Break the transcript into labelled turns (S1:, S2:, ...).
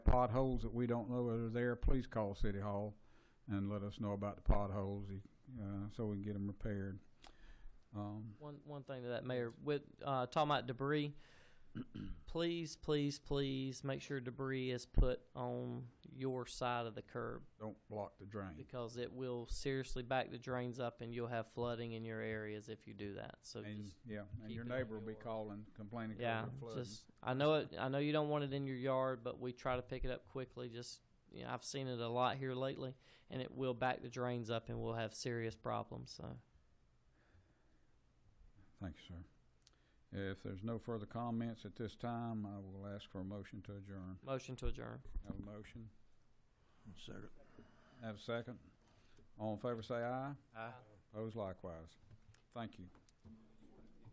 S1: potholes that we don't know that are there, please call City Hall and let us know about the potholes, uh, so we can get them repaired. Um,
S2: One, one thing to that, Mayor, with, uh, talking about debris, please, please, please make sure debris is put on your side of the curb
S1: don't block the drain.
S2: because it will seriously back the drains up and you'll have flooding in your areas if you do that. So
S1: And,
S2: just,
S1: yeah, and
S2: keep
S1: your
S2: it on
S1: neighbor will be
S2: your-
S1: calling, complaining
S2: yeah,
S1: because of flooding.
S2: just, I know it, I know you don't want it in your yard, but we try to pick it up quickly. Just, you know, I've seen it a lot here lately and it will back the drains up and we'll have serious problems, so.
S1: Thank you, sir. If there's no further comments at this time, I will ask for a motion to adjourn.
S2: Motion to adjourn.
S1: Have a motion?
S3: Second.
S1: Have a second? All in favor, say aye. Opposed likewise. Thank you.